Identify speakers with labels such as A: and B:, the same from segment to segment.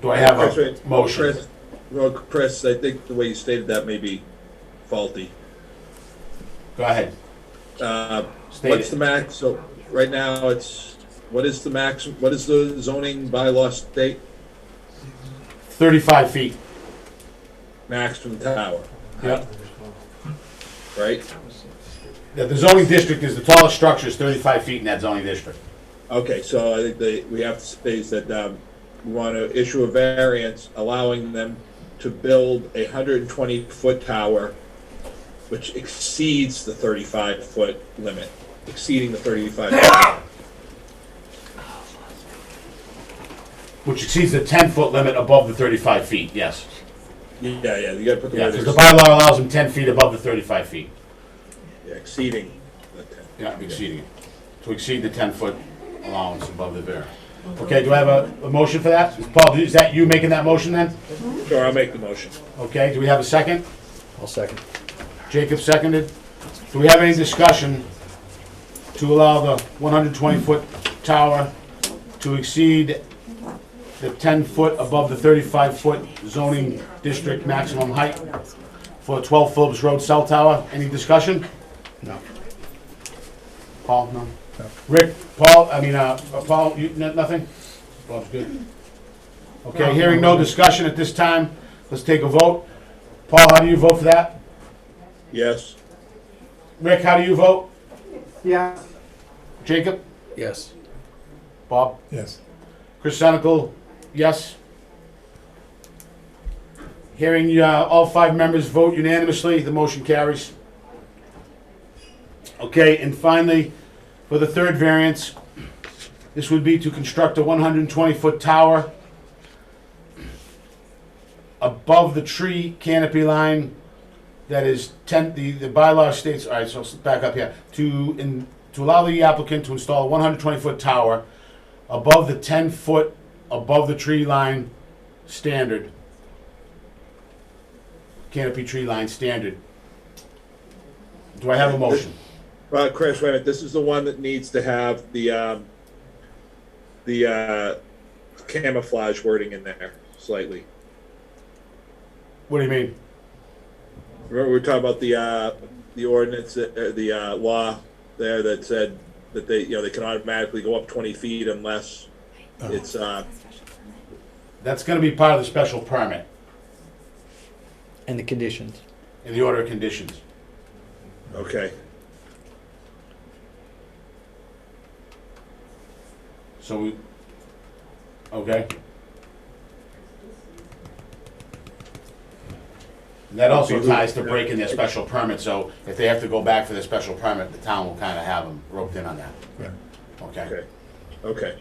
A: Do I have
B: That's
A: a
B: right.
A: motion?
B: Chris, well, Chris, I think the way you stated that may be faulty.
A: Go ahead,
B: Uh,
A: state
B: What's the
A: it.
B: max, so, right now, it's, what is the max, what is the zoning bylaw state
A: Thirty-five feet.
B: maximum tower,
A: Yeah,
B: right?
A: Yeah, the zoning district is, the tallest structure is thirty-five feet in that zoning district.
B: Okay, so I think they, we have to state that, um, we want to issue a variance allowing them to build a hundred and twenty foot tower, which exceeds the thirty-five foot limit, exceeding the thirty-five. foot.
A: Which exceeds the ten-foot limit above the thirty-five feet, yes.
B: Yeah, yeah, you gotta put the
A: Yeah,
B: word.
A: because the bylaw allows them ten feet above the thirty-five feet.
B: Yeah, Exceeding the ten.
A: Yeah, exceeding it. To exceed the ten-foot allowance above the variance. Okay, do I have a, a motion for that? Paul, is that you making that motion then?
B: Sure, I'll make the motion.
A: Okay, do we have a second?
C: I'll second.
A: Jacob seconded. Do we have any discussion to allow the 120-foot tower to exceed the 10-foot above the 35-foot zoning district maximum height for a 12 Phillips Road cell tower? Any discussion?
C: No.
A: Paul, no? Rick, Paul, I mean, uh, uh, Paul, you, n- nothing? Bob's good. Okay, hearing no discussion at this time, let's take a vote. Paul, how do you vote for that?
B: Yes.
A: Rick, how do you vote?
D: Yeah.
A: Jacob?
C: Yes.
A: Bob?
C: Yes.
A: Chris Senical, yes. Hearing uh, all five members vote unanimously, the motion carries. Okay, and finally, for the third variance, this would be to construct a 120-foot tower above the tree canopy line that is 10, the, the bylaw states, all right, so let's back up here, to, in, to allow the applicant to install a 120-foot tower above the ten foot above the tree line standard. Canopy tree line standard. Do I have a motion?
B: Well, Chris, wait a minute, this is the one that needs to have the, um, the, uh, camouflage wording in there slightly.
A: What do you mean?
B: Remember, we were talking about the, uh, the ordinance, that- uh, the, uh, law there that said that they, you know, they can automatically go up twenty feet unless it's, uh,
A: That's gonna be part of the special permit
C: And the conditions.
A: in the order of conditions.
B: okay,
A: So we, okay? And That also ties to breaking their special permit, so if they have to go back for their special permit, the town will kinda have them roped in on that.
C: Right.
A: Okay?
B: okay, okay,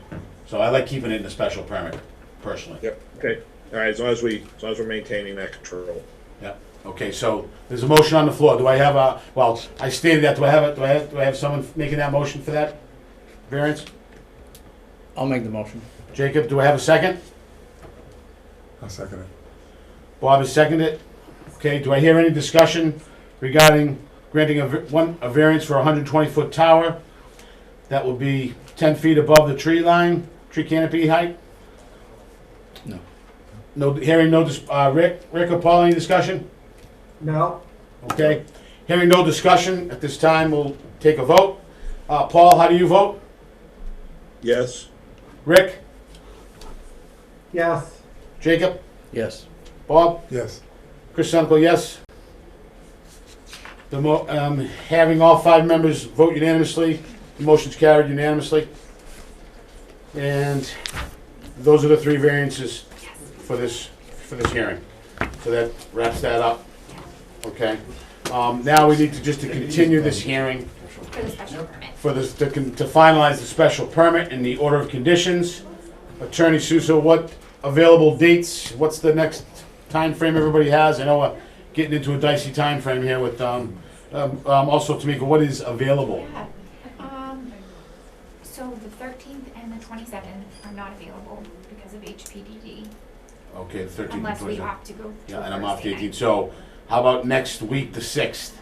A: So I like keeping it in the special permit personally.
B: yep, okay. All right, as long as we, as long as we're maintaining that control.
A: Yeah, okay, so there's a motion on the floor. Do I have a, well, I stated that, do I have a, do I have, do I have someone making that motion for that variance?
C: I'll make the motion.
A: Jacob, do I have a second?
E: I'll second it.
A: Bob has seconded it. Okay, do I hear any discussion regarding granting a, v- one, a variance for a hundred and twenty foot tower? That will be ten feet above the tree line, tree canopy height?
C: No.
A: No, hearing no, dis- uh, Rick, Rick or Paul, any discussion?
D: No.
A: Okay, hearing no discussion, at this time, we'll take a vote. Uh, Paul, how do you vote?
B: Yes,
A: Rick,
D: Yes.
A: Jacob,
C: Yes.
A: Bob,
E: Yes.
A: Chris Sunkel, yes. The mo, um, having all five members vote unanimously, the motion's carried unanimously. And those are the three variances for this, for this hearing. So that wraps that up. Okay, um, now we need to just to continue this hearing
F: For the special permit.
A: for this, to con- to finalize the special permit and the order of conditions. Attorney Suso, what available dates, what's the next time frame everybody has? I know we're getting into a dicey time frame here with, um, um, um, also Tamika, what is available?
F: Um, so the thirteenth and the twenty-seventh are not available because of HPDD,
A: Okay, the thirteenth and
F: unless we
A: twenty-seventh.
F: opt to go to Thursday
A: Yeah, and I'm off the
F: night.
A: eighteenth, so how about next week, the sixth?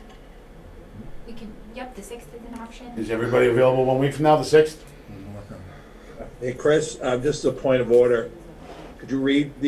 F: We can, yep, the sixth is an option.
A: Is everybody available one week from now, the sixth?
E: I'm working on it.
B: hey, Chris, uh, just a point of order. Could you read the